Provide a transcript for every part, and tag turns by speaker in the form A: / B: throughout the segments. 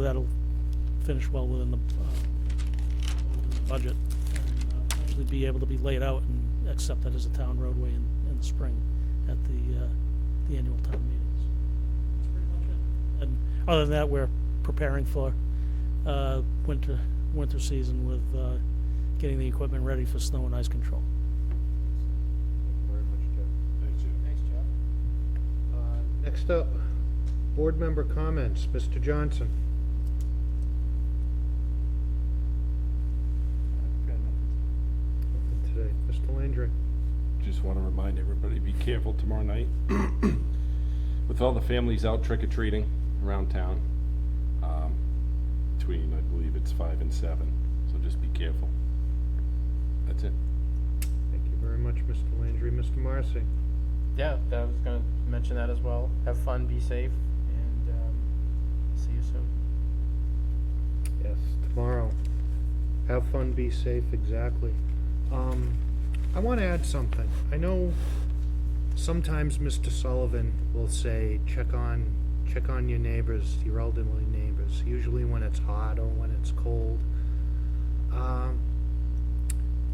A: that'll finish well within the uh, budget. and uh, Actually be able to be laid out and accept that as a town roadway in, in the spring at the, uh, the annual town meetings. That's pretty much it. And other than that, we're preparing for uh, winter, winter season with uh, getting the equipment ready for snow and ice control.
B: Very much, Jeff.
C: Thanks, Jim.
D: Thanks, Jeff.
B: Uh, Next up, board member comments, Mr. Johnson. Nothing Today, Mr. Landry.
C: Just want to remind everybody, be careful tomorrow night. With all the families out trick or treating around town, um, between, I believe it's five and seven, so just be careful. That's it.
B: Thank you very much, Mr. Landry. Mr. Marcy.
D: Yeah, I was gonna mention that as well. Have fun, be safe, and um, see you soon.
B: Yes. Tomorrow. Have fun, be safe, exactly. Um, I want to add something. I know sometimes Mr. Sullivan will say, check on, check on your neighbors, your elderly neighbors, usually when it's hot or when it's cold. Um,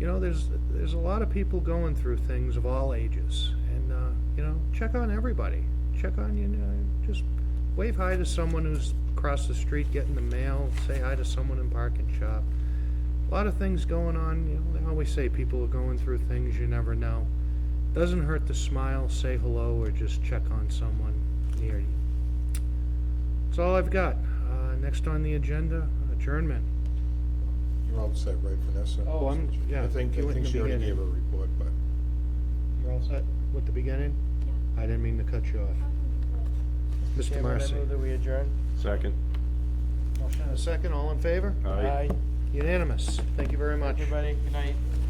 B: you know, there's, there's a lot of people going through things of all ages. And, uh, you know, check on everybody. Check on, you know, just wave hi to someone who's across the street getting the mail, say hi to someone in parking shop. A lot of things going on, you know, they always say people are going through things you never know. Doesn't hurt to smile, say hello, or just check on someone near you. That's all I've got. Uh, next on the agenda, adjournment.
E: You're all set, right, Vanessa?
B: Oh, I'm- yeah,
E: I think,
B: you
E: I
B: went in the
E: think she already
B: beginning.
E: gave her report, but
B: You're all set with the beginning? I didn't mean to cut you off. Mr.
D: Chairman,
B: Marcy.
D: I move that we adjourn.
C: Second.
B: Motion and a second, all in favor?
C: Aye.
B: Unanimous. Thank you very much.
D: Everybody, good night.